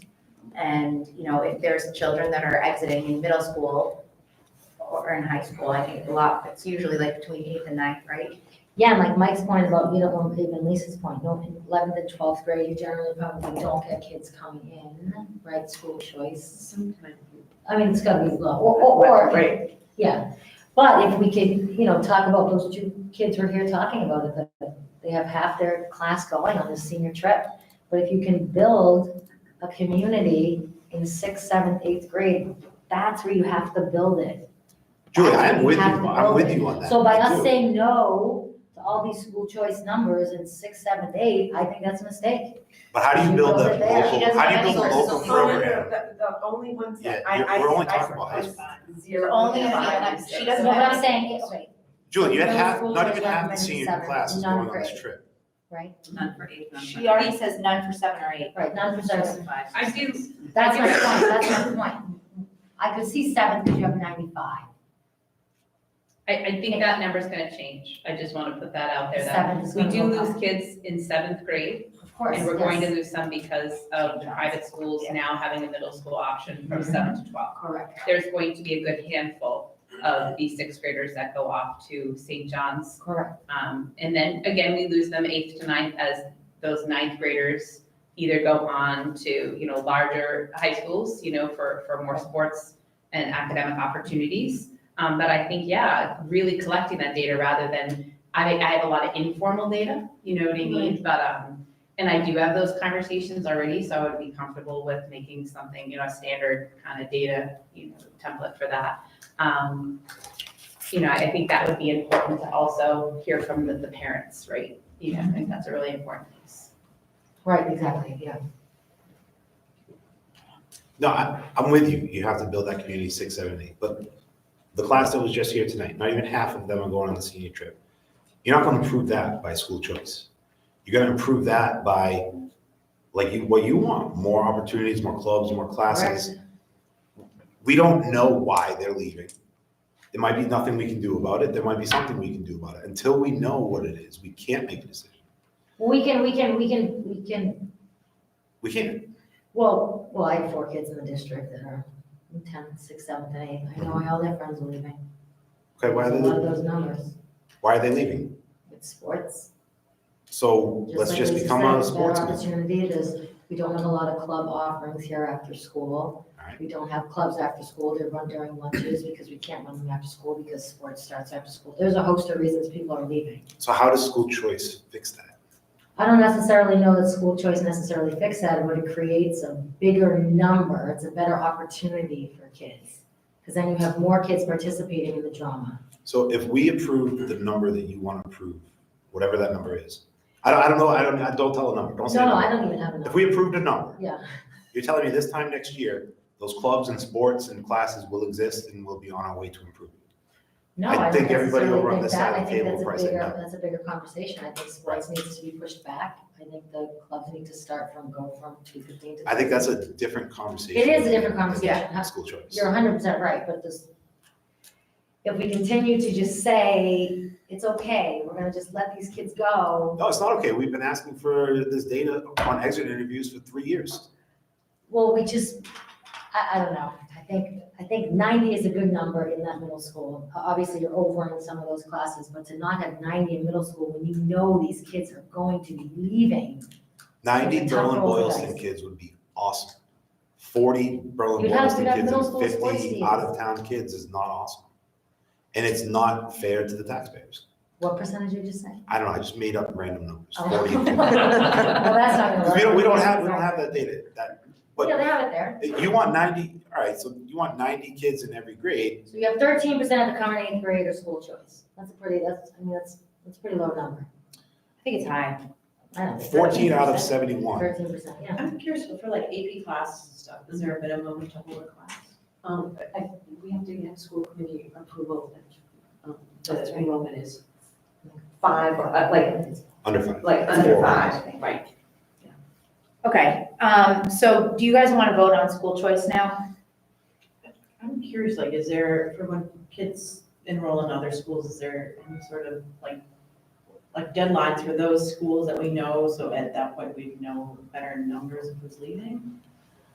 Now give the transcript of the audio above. And, you know, if there's children that are exiting in middle school or in high school, I think a lot, it's usually like between eighth and ninth, right? Yeah, like Mike's point about, you know, and even Lisa's point, no, in eleventh and twelfth grade, you generally probably don't get kids coming in, right, school choice. Sometimes. I mean, it's gotta be low, or, or, or, Right, yeah. But if we could, you know, talk about those two kids we're here talking about, it, that they have half their class going on this senior trip. But if you can build a community in sixth, seventh, eighth grade, that's where you have to build it. Julie, I'm with you, Have to I'm with vote. you on that. So by us too. saying no to all these school choice numbers in six, seven, eight, I think that's a mistake. But how do you build She a goes there, she local, doesn't how do you have build a any local source. program? The, the only ones that Yeah, I, you're- I. we're only I- talking about high I- school. Zero. Only and if you- five. she No, doesn't but have I'm saying, it's right, Julie, you had No half, schools not even are half the recommending senior seven, classes none going on this grade. trip. right, None for eight, none for- She already says none for seven or eight. right, none for seven. I do, That's my point, that's my point. I could see seven because you have ninety-five. I, I think that number's gonna change, I just wanna put that out there, that Seven is we gonna do go lose up. kids in seventh grade, Of course, and we're going to yes, lose some because of the private schools now having a middle school option from Mm-hmm. seven to twelve. correct. There's going to be a good handful of these sixth graders that go off to St. John's Correct. Um, and then again, we lose them eighth to ninth as those ninth graders either go on to, you know, larger high schools, you know, for, for more sports and academic opportunities. Um, but I think, yeah, really collecting that data rather than, I, I have a lot of informal data, you know what I mean? But, um, and I do have those conversations already, so I would be comfortable with making something, you know, a standard kind of data, you know, template for that. Um, you know, I think that would be important to also hear from the, the parents, right? You know, I think that's a really important piece. Right, exactly, yeah. No, I, I'm with you. You have to build that community six, seven, eight. But the class that was just here tonight, not even half of them are going on the senior trip. You're not gonna improve that by school choice. You're gonna improve that by, like, you, what you want, more opportunities, more clubs, more classes. We don't know why they're leaving. There might be nothing we can do about it. There might be something we can do about it. Until we know what it is, we can't make a decision. We can, we can, we can, we can, We can't. well, well, I have four kids in the district that are in tenth, sixth, seventh, and eighth. I know why all their friends are leaving. Okay, why A are they, lot of leaving? those numbers. why are they leaving? It's sports. So let's like just Lisa become said, a sports Better committee. opportunity it is, we don't have a lot of club offerings here after school. Alright. We don't have clubs after school, they run during lunches because we can't run them after school because sports starts after school. There's a host of reasons people are leaving. So how does school choice fix that? I don't necessarily know that school choice necessarily fixes that, but it creates a bigger number, it's a better opportunity for kids. Because then you have more kids participating in the drama. So if we approve the number that you want to approve, whatever that number is, I don't, I don't know, I don't, I don't tell a number, don't say No, a no, I number. don't even have If enough. we approved a number, Yeah, you're telling me this time next year, those clubs and sports and classes will exist and we'll be on our way to improvement. No, I I don't think everybody necessarily over on think this that. side of I the think table that's a probably said bigger- no. That's a bigger conversation. I think sports needs to be pushed back. I think the clubs need to start from, go from two fifteen to. I think that's a different conversation. It is a different conversation. than School choice. You're hundred percent right, but this, if we continue to just say, it's okay, we're gonna just let these kids go. No, it's not okay. We've been asking for this data on exit interviews for three years. Well, we just, I, I don't know. I think, I think ninety is a good number in that middle school. O- Obviously, you're over in some of those classes, but to not have ninety in middle school when you know these kids are going to be leaving Ninety Like a Berlin couple of Boylston guys. kids would be awesome. Forty Berlin You'd have- Boylston you'd have kids middle school and sports fifty teams. out-of-town kids is not awesome. And it's not fair to the taxpayers. What percentage did you say? I don't know, I just made up random numbers, Oh. forty. Well, that's not gonna work. We don't, we don't have, we don't have that data, that, but- Yeah, they have it there. you want ninety, all right, so you want ninety kids in every grade. So you have thirteen percent of the current eighth grade are school choice. That's a pretty, that's, I mean, that's, that's a pretty low number. I think it's high. I don't know. Fourteen out of seventy-one, Thirteen percent, yeah. I'm curious, but for like AP classes and stuff, is there a minimum to hold a class? Um, I, we have to get school committee approval, um, the enrollment is five, or uh, like, under five. like under Four. five, right? Okay, um, so do you guys want to vote on school choice now? I'm curious, like, is there, for when kids enroll in other schools, is there any sort of like, like deadlines for those schools that we know, so at that point we know better numbers of who's leaving?